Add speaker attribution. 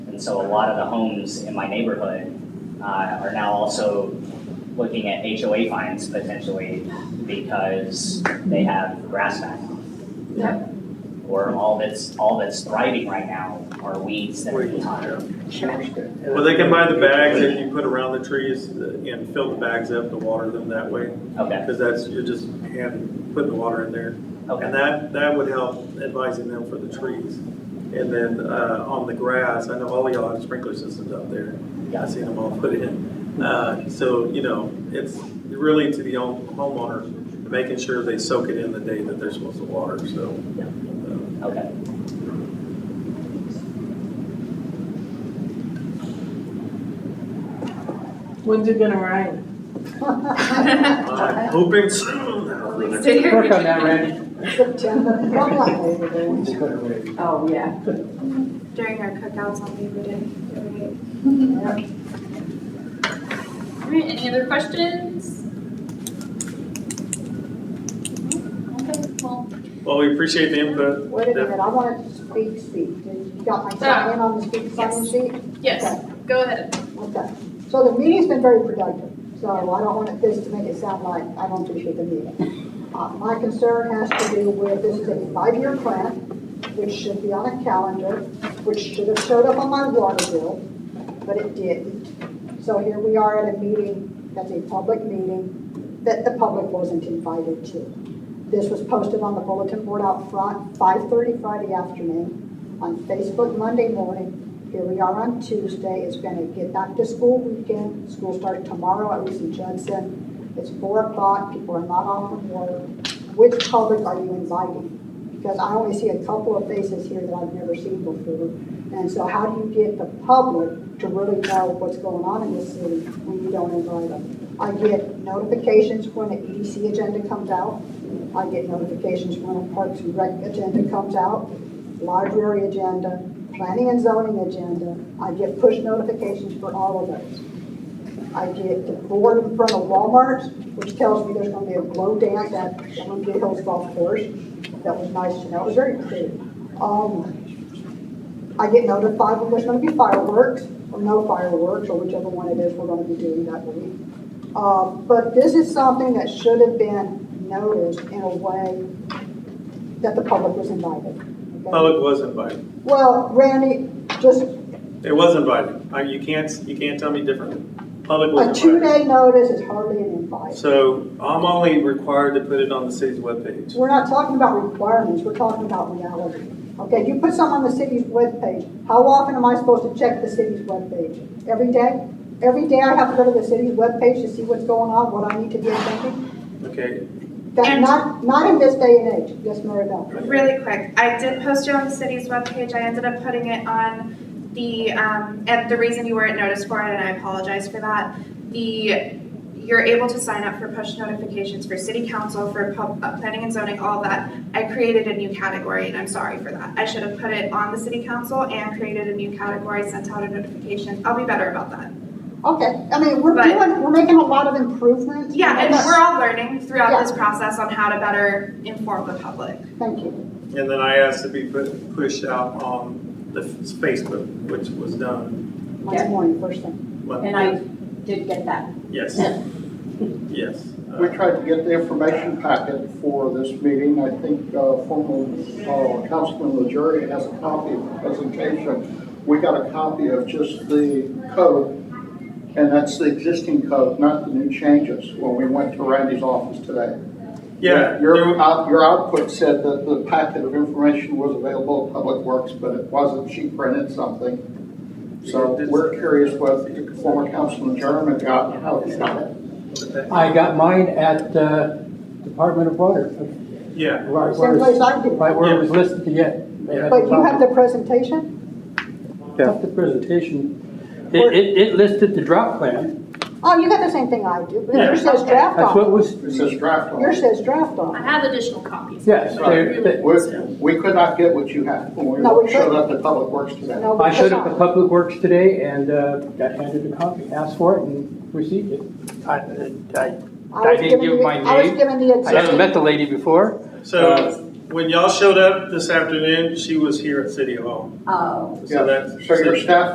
Speaker 1: And so a lot of the homes in my neighborhood uh, are now also looking at HOA fines potentially because they have grass back on.
Speaker 2: Yep.
Speaker 1: Or all that's, all that's thriving right now are weeds that are
Speaker 3: Weeds,
Speaker 1: time.
Speaker 2: Sure.
Speaker 3: Well, they can buy the bags that you put around the trees and fill the bags up to water them that way,
Speaker 1: Okay,
Speaker 3: because that's, you're just hand, putting the water in there. And
Speaker 1: okay,
Speaker 3: that, that would help advising them for the trees. And then, uh, on the grass, I know all y'all have sprinkler systems out there.
Speaker 1: Yeah.
Speaker 3: I've seen them all put in. Uh, so, you know, it's really to the home- homeowner, making sure they soak it in the day that they're supposed to water, so. uh,
Speaker 1: okay.
Speaker 4: When's it gonna rain?
Speaker 3: Uh, I'm hoping soon.
Speaker 4: Work on that, Randy.
Speaker 2: Oh, yeah.
Speaker 5: during our cookouts on Labor Day. right?
Speaker 6: All right, any other questions? Okay, well,
Speaker 3: Well, we appreciate the input.
Speaker 7: Wait a minute, I wanted to speak, speak. Did You got my sign in on the speak sign sheet?
Speaker 6: yes, go ahead.
Speaker 7: Okay. So the meeting's been very productive, so I don't want this to make it sound like I don't appreciate the meeting. Uh, My concern has to do with, this is a five-year plan, which should be on a calendar, which should have showed up on my water bill, but it didn't. So here we are at a meeting, that's a public meeting, that the public wasn't invited to. This was posted on the bulletin board out front, 5:30 Friday afternoon, on Facebook Monday morning, here we are on Tuesday, it's gonna get back to school weekend, school starts tomorrow, at least in Judson. It's four o'clock, people are not off from work. Which public are you inviting? Because I only see a couple of faces here that I've never seen before. And so how do you get the public to really know what's going on in this city when you don't invite them? I get notifications when the EDC agenda comes out. I get notifications when a Parks and Rec agenda comes out, library agenda, planning and zoning agenda. I get push notifications for all of those. I get the board in front of Walmart, which tells me there's gonna be a blow dance at Olympia Hills Golf Course. That was nice to know, it was very clear. Um, I get notified when there's gonna be fireworks, or no fireworks, or whichever one it is we're gonna be doing that week. Uh, but this is something that should have been noticed in a way that the public was invited. okay?
Speaker 3: Public was invited.
Speaker 7: Well, Randy, just
Speaker 3: It was invited. I- You can't, you can't tell me differently. Public
Speaker 7: a
Speaker 3: was invited.
Speaker 7: two-day notice is hardly an invite.
Speaker 3: So I'm only required to put it on the city's webpage.
Speaker 7: We're not talking about requirements, we're talking about reality. Okay, you put something on the city's webpage, how often am I supposed to check the city's webpage? Every day? Every day I have to go to the city's webpage to see what's going on, what I need to be attending?
Speaker 3: Okay,
Speaker 7: That,
Speaker 5: And-
Speaker 7: not, not in this day and age, yes, Maribel.
Speaker 5: Really quick, I did post it on the city's webpage. I ended up putting it on the, um, and the reason you weren't noticed for it, and I apologize for that. The, you're able to sign up for push notifications for city council, for pub, uh, planning and zoning, all that. I created a new category and I'm sorry for that. I should have put it on the city council and created a new category, sent out a notification. I'll be better about that.
Speaker 7: Okay, I mean, we're
Speaker 5: But-
Speaker 7: doing, we're making a lot of improvements.
Speaker 5: Yeah, and
Speaker 7: Okay,
Speaker 5: we're all learning throughout this process on how to better inform the public.
Speaker 7: Thank you.
Speaker 3: and then I asked to be put, pushed out on the Facebook, which was done.
Speaker 7: Monday
Speaker 2: Yeah.
Speaker 7: morning, first thing.
Speaker 3: Monday.
Speaker 2: And I did get that.
Speaker 3: Yes, yes. Uh,
Speaker 8: We tried to get the information packet for this meeting. I think uh, former uh, Councilman Legere has a copy of the presentation. We got a copy of just the code, and that's the existing code, not the new changes, when we went to Randy's office today.
Speaker 3: Yeah,
Speaker 8: Your,
Speaker 3: there-
Speaker 8: out- your output said that the packet of information was available at Public Works, but it wasn't. She printed something. So we're curious what the former Councilman Jeremy got, and how he got it.
Speaker 4: I got mine at, uh, Department of Water, uh,
Speaker 3: yeah,
Speaker 4: right
Speaker 7: Same
Speaker 4: where,
Speaker 7: place
Speaker 4: it's-
Speaker 7: I do.
Speaker 4: right where it was listed to get. They had
Speaker 7: But you have
Speaker 4: problem.
Speaker 7: the presentation?
Speaker 4: Not the presentation, it, it, it listed the drop plan,
Speaker 7: Oh, you got the same thing I do.
Speaker 3: Yeah.
Speaker 7: Yours says draft
Speaker 4: that's what
Speaker 7: on.
Speaker 4: was,
Speaker 8: It says draft on
Speaker 7: Yours
Speaker 8: it.
Speaker 7: says draft on.
Speaker 6: I have additional copies.
Speaker 4: yes, they- they-
Speaker 8: We, we could not get what you had when
Speaker 7: No, we
Speaker 8: we showed
Speaker 7: couldn't.
Speaker 8: up at Public Works today.
Speaker 7: No,
Speaker 4: I
Speaker 7: because
Speaker 4: showed up at
Speaker 7: I-
Speaker 4: Public Works today and, uh, got handed a copy, asked for it and received it. I, I,
Speaker 7: I was
Speaker 4: I didn't
Speaker 7: given
Speaker 4: give
Speaker 7: the-
Speaker 4: my
Speaker 7: I was
Speaker 4: name.
Speaker 7: given the
Speaker 4: I haven't
Speaker 7: existing,
Speaker 4: met the lady before,
Speaker 3: so when y'all showed up this afternoon, she was here at City Hall.
Speaker 6: Um,
Speaker 2: Oh.
Speaker 3: So that's.
Speaker 8: So your staff